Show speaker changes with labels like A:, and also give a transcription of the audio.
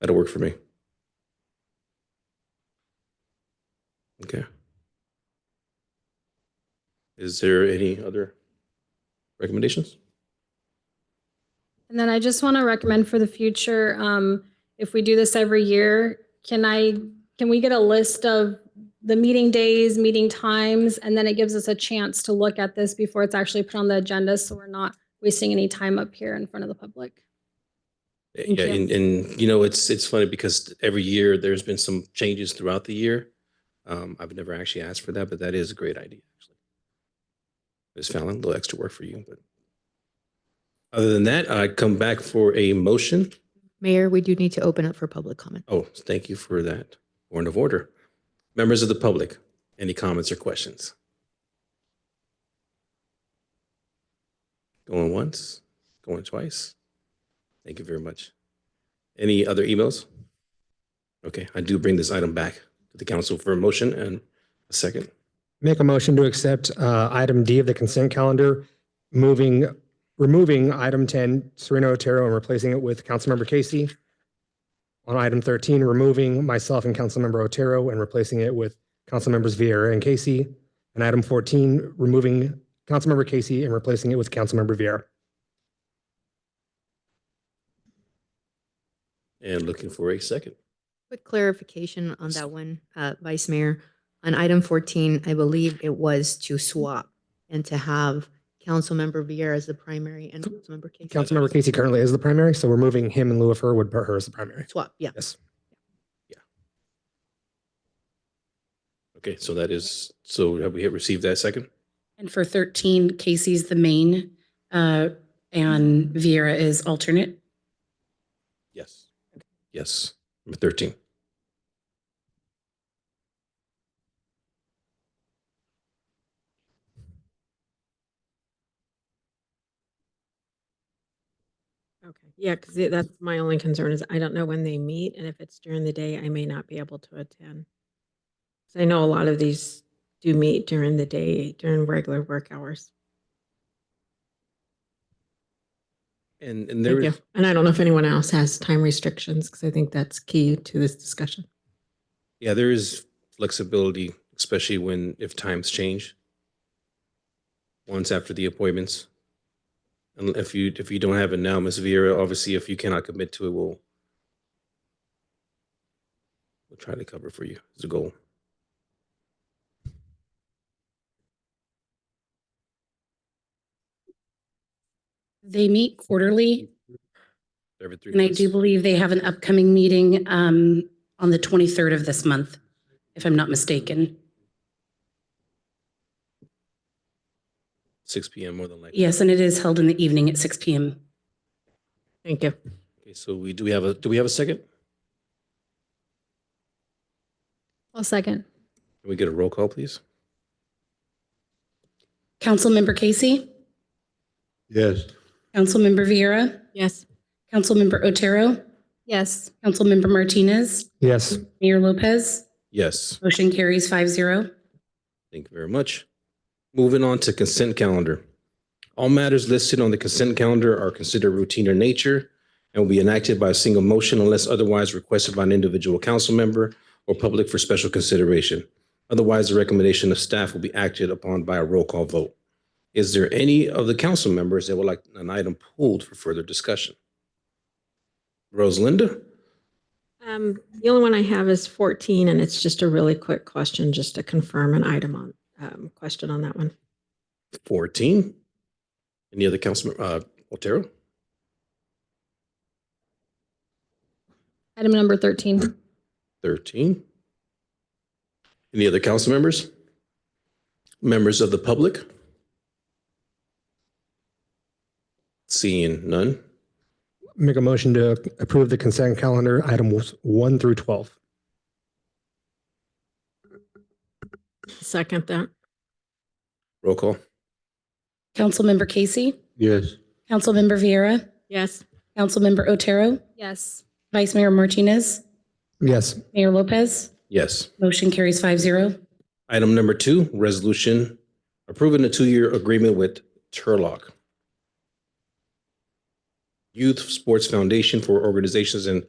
A: That'll work for me. Okay. Is there any other recommendations?
B: And then I just want to recommend for the future, um, if we do this every year, can I, can we get a list of the meeting days, meeting times, and then it gives us a chance to look at this before it's actually put on the agenda, so we're not wasting any time up here in front of the public.
A: Yeah,
B: you.
A: and, and you know, it's, it's funny because every year there's been some changes throughout the year. Um, I've never actually asked for that, but that is a great idea, actually. Ms. Fallon, a little extra work for you, but other than that, I come back for a motion.
C: Mayor, we do need to open up for public comment.
A: Oh, thank you for that. Point of order. Members of the public, any comments or questions? Going once, going twice. Thank you very much. Any other emails? Okay, I do bring this item back to the council for a motion and a second.
D: Make a motion to accept uh, item D of the consent calendar, moving, removing item 10, Serena Otero, and replacing it with Councilmember Casey. On item 13, removing myself and Councilmember Otero and replacing it with Councilmembers Vieira and Casey. And item 14, removing Councilmember Casey and replacing it with Councilmember Vieira.
A: And looking for a second.
C: Quick clarification on that one, uh, Vice Mayor. On item 14, I believe it was to swap and to have Councilmember Vieira as the primary and Councilmember Casey.
D: Councilmember Casey currently is the primary, so we're moving him in lieu of her, would put her as the primary.
C: Swap, yeah.
D: Yes.
A: Okay, so that is, so have we received that second?
E: And for 13, Casey's the main uh, and Vieira is alternate.
A: Yes. Yes, number 13.
F: Okay, yeah, because that's my only concern is I don't know when they meet and if it's during the day, I may not be able to attend. 'Cause I know a lot of these do meet during the day, during regular work hours.
A: And, and there
F: Thank
A: is.
F: you. And I don't know if anyone else has time restrictions because I think that's key to this discussion.
A: Yeah, there is flexibility, especially when, if times change. Once after the appointments. And if you, if you don't have it now, Ms. Vieira, obviously, if you cannot commit to it, we'll we'll try to cover for you. It's a goal.
E: They meet quarterly,
A: Every three
E: and I
A: months.
E: do believe they have an upcoming meeting um, on the 23rd of this month, if I'm not mistaken.
A: Six PM more than likely.
E: Yes, and it is held in the evening at 6 PM.
F: Thank you.
A: Okay, So we, do we have a, do we have a second? Can
B: I'll second.
A: we get a roll call, please?
E: Councilmember Casey,
G: Yes.
E: Councilmember Vieira,
F: Yes.
E: Councilmember Otero,
B: Yes.
E: Councilmember Martinez,
D: Yes.
E: Mayor Lopez.
A: Yes,
E: Motion carries five zero.
A: thank you very much. Moving on to consent calendar. All matters listed on the consent calendar are considered routine in nature and will be enacted by a single motion unless otherwise requested by an individual council member or public for special consideration. Otherwise, the recommendation of staff will be acted upon by a roll call vote. Is there any of the council members that would like an item pulled for further discussion? Rosalinda?
F: Um, the only one I have is 14 and it's just a really quick question, just to confirm an item on, um, question on that one.
A: 14. Any other council, uh, Otero?
B: Item number 13.
A: 13. Any other council members? Members of the public? Seeing none.
D: Make a motion to approve the consent calendar, items one through 12.
F: Second that.
A: Roll call.
E: Councilmember Casey,
G: Yes.
E: Councilmember Vieira,
F: Yes.
E: Councilmember Otero,
B: Yes.
E: Vice Mayor Martinez,
D: Yes.
E: Mayor Lopez.
A: Yes.
E: Motion carries five zero.
A: Item number two, resolution approving a two-year agreement with Turlock Youth Sports Foundation for organizations and